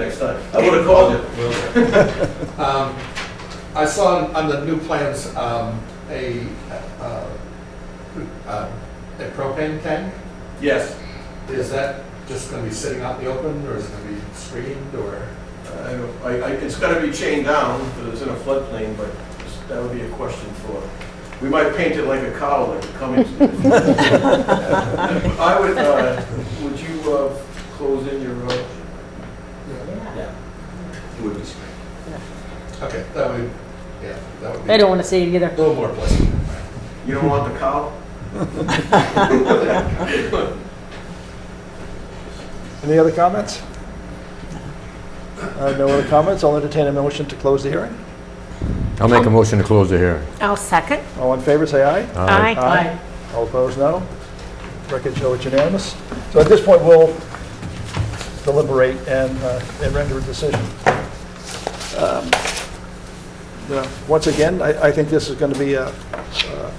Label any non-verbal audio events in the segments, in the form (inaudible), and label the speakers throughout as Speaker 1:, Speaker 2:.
Speaker 1: next time. I would have called you.
Speaker 2: (laughs) Um, I saw on- on the new plans, um, a, uh, uh, a propane tank.
Speaker 1: Yes,
Speaker 2: Is that just gonna be sitting out in the open, or is it gonna be screened, or?
Speaker 1: I, I- I- it's gotta be chained down, because it's in a floodplain, but that would be a question for, we might paint it like a cow, like a Cummings. (laughs) I would, uh, would you, uh, close in your, uh,
Speaker 3: It would be screened.
Speaker 2: Okay, that would, yeah, that would be.
Speaker 4: They don't want to see it
Speaker 2: A
Speaker 4: either.
Speaker 2: little more pleasant.
Speaker 1: you don't want the cow?
Speaker 5: Any other comments? Uh, No other comments, I'll entertain a motion to close the hearing.
Speaker 6: I'll make a motion to close the hearing.
Speaker 4: I'll second.
Speaker 5: All in favor, say aye.
Speaker 4: Aye.
Speaker 5: Aye. All opposed, no. Record show it's unanimous. So at this point, we'll deliberate and uh, and render a decision. Um, yeah, Once again, I I think this is going to be uh, uh,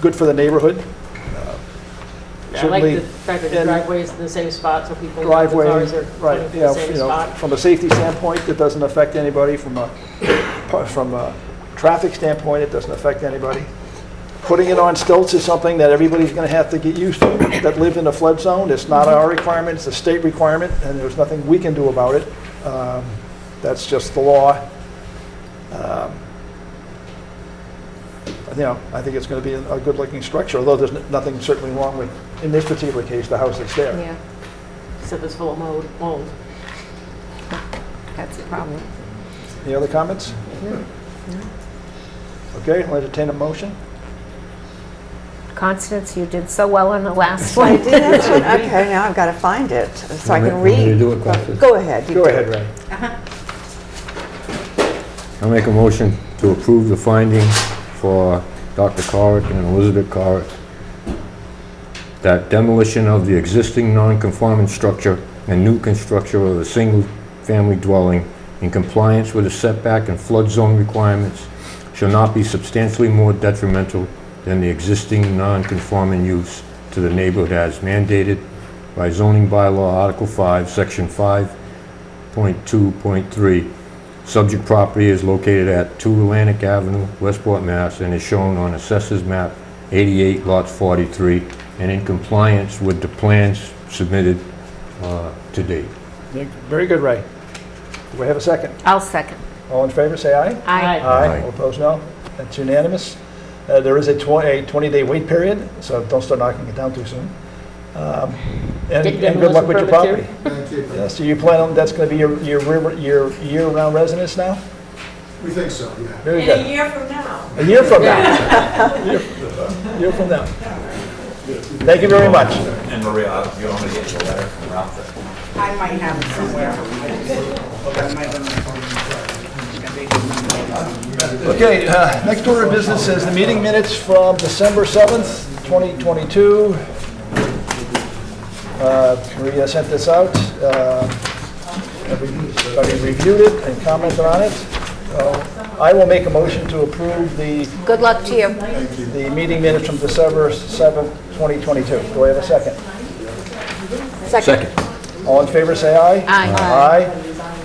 Speaker 5: good for the neighborhood.
Speaker 4: I like
Speaker 5: Certainly,
Speaker 4: the fact that the
Speaker 5: and-
Speaker 4: driveway is in the same spot, so people. know the
Speaker 5: driveway,
Speaker 4: cars are
Speaker 5: right,
Speaker 4: in
Speaker 5: yeah,
Speaker 4: The same
Speaker 5: you know,
Speaker 4: spot.
Speaker 5: from a safety standpoint, it doesn't affect anybody, from a, from a traffic standpoint, it doesn't affect anybody. Putting it on stilts is something that everybody's gonna have to get used to, that live in a flood zone, it's not our requirement, it's a state requirement, and there's nothing we can do about it. Um, That's just the law. Um, You know, I think it's gonna be a good-looking structure, although there's nothing certainly wrong with, in this particular case, the house that's there.
Speaker 4: Yeah. Except it's full of mold, mold. That's the problem.
Speaker 5: Any other comments? Okay, I'll entertain a motion.
Speaker 7: Constance, you did so well on the
Speaker 4: (laughs)
Speaker 7: last one.
Speaker 8: Okay, now I've got to find it, so I can read. Go ahead. you
Speaker 5: Go
Speaker 8: do
Speaker 5: ahead, Ray.
Speaker 6: I'll make a motion to approve the finding for Dr. Corick and Elizabeth Corick that demolition of the existing non-conforming structure and new construction of a single-family dwelling in compliance with the setback and flood zone requirements shall not be substantially more detrimental than the existing non-conforming use to the neighborhood as mandated by zoning bylaw Article 5, Section 5.2.3 Subject property is located at 2 Atlantic Avenue, Westport, Mass., and is shown on Assessors Map 88, Lot 43, and in compliance with the plans submitted uh, to date.
Speaker 5: Very good, Ray. Do we have a second?
Speaker 7: I'll second.
Speaker 5: All in favor, say aye.
Speaker 7: I
Speaker 6: Aye.
Speaker 5: All opposed, no. That's unanimous. Uh, There is a 20-day wait period, so don't start knocking it down too soon. Um, And
Speaker 4: Did
Speaker 5: and good luck with your property.
Speaker 4: demolition
Speaker 2: Thank you.
Speaker 5: Yeah, So you plan on, that's going to be your your river- your year-round residence now?
Speaker 2: We think so, yeah.
Speaker 5: Very good.
Speaker 8: year from now.
Speaker 5: A year from now. A year from now. Thank you very much.
Speaker 3: And Maria, I- you want me to get you a letter from Ralph that
Speaker 8: I might have it somewhere. I might have it somewhere.
Speaker 5: Okay, uh, next order of business is the meeting minutes from December 7th, 2022. Uh, Maria sent this out. uh, Everybody reviewed it and commented on it. Uh, So I will make a motion to approve the,
Speaker 7: Good luck to you.
Speaker 5: the meeting minutes from December 7th, 2022. Do I have a second?
Speaker 7: Second.
Speaker 5: All in favor, say aye.
Speaker 7: Aye.
Speaker 5: Aye.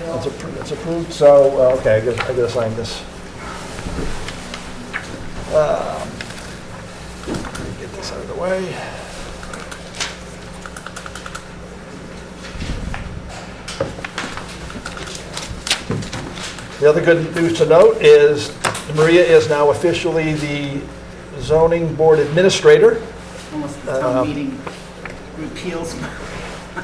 Speaker 5: That's appro- That's approved, so, uh, okay, I gotta, I gotta sign this. Um, Get this out of the way. The other good news to note is Maria is now officially the zoning board administrator. Uh,
Speaker 9: Almost the town meeting repeals.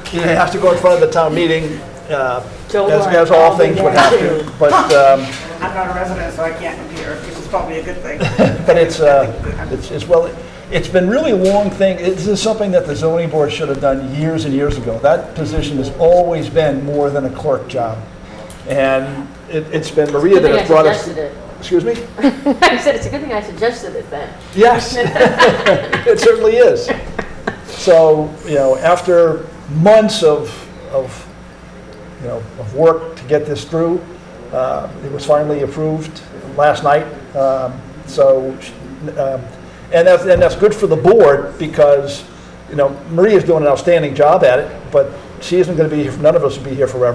Speaker 5: She has to go in front of the town meeting, uh,
Speaker 4: Don't
Speaker 5: As,
Speaker 4: worry,
Speaker 5: as all
Speaker 4: I'll be
Speaker 5: things would
Speaker 4: there
Speaker 5: have
Speaker 4: too.
Speaker 5: to,
Speaker 4: (laughs)
Speaker 5: but, um,
Speaker 9: I'm not a resident, so I can't appear, which is probably a good thing.
Speaker 5: (laughs) but it's,
Speaker 9: (laughs)
Speaker 5: uh, it's, it's well, it's been really a long thing, this is something that the zoning board should have done years and years ago. That position has always been more than a clerk job, and it, it's been Maria
Speaker 4: Good
Speaker 5: that
Speaker 4: thing I
Speaker 5: has brought us.
Speaker 4: suggested it. (laughs)
Speaker 5: Excuse me?
Speaker 4: I said, it's a good thing I suggested it then.
Speaker 5: Yes, it certainly is. So, you know, after months of, of, you know, of work to get this through, uh, it was finally approved last night. Um, So, sh- um, and that's, and that's good for the board because, you know, Maria's doing an outstanding job at it, but she isn't going to be, here. none of us will be here forever.